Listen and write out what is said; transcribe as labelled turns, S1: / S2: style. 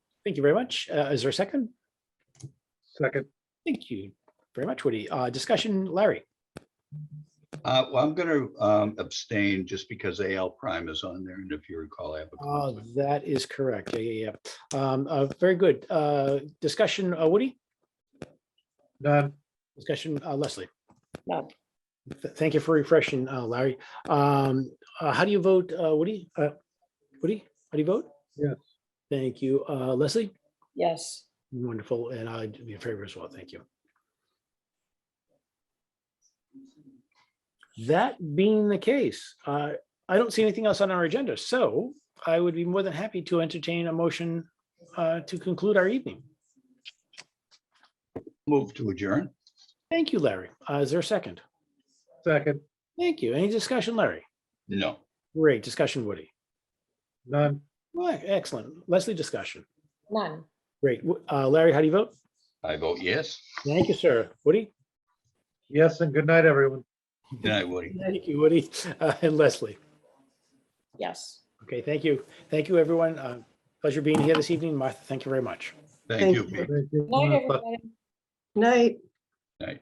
S1: Thank you very much. Uh, Is there a second?
S2: Second,
S1: Thank you very much, Woody. Uh, Discussion, Larry.
S3: Uh, well, I'm gonna, um, abstain just because AL prime is on there, and if you recall, I have a
S1: Oh,
S3: conflict.
S1: that is correct. Yeah, yeah, yeah. Um, uh, Very good. Uh, Discussion, uh, Woody?
S2: none,
S1: Discussion, uh, Leslie?
S4: No.
S1: Th- Thank you for refreshing, uh, Larry. Um, uh, How do you vote, uh, Woody? Uh, Woody, how do you vote?
S2: Yes.
S1: Thank you. Uh, Leslie?
S4: Yes,
S1: Wonderful, and I'd be in favor as well. Thank you. That being the case, uh, I don't see anything else on our agenda, so I would be more than happy to entertain a motion uh, to conclude our evening.
S3: Move to adjourn.
S1: Thank you, Larry. Uh, Is there a second?
S2: second,
S1: Thank you. Any discussion, Larry?
S3: No.
S1: Great discussion, Woody.
S2: none,
S1: Well, Excellent. Leslie, discussion.
S4: none.
S1: Great. W- uh, Larry, how do you vote?
S3: I vote yes.
S1: Thank you, sir. Woody?
S2: yes, and good night, everyone.
S3: Good night, Woody.
S1: Thank you, Woody. Uh, And Leslie?
S4: Yes.
S1: Okay, thank you. Thank you, everyone. Uh, Pleasure being here this evening. Martha, thank you very much.
S3: Thank you. Pete.
S2: Thank you.
S4: Night, everybody.
S5: Night.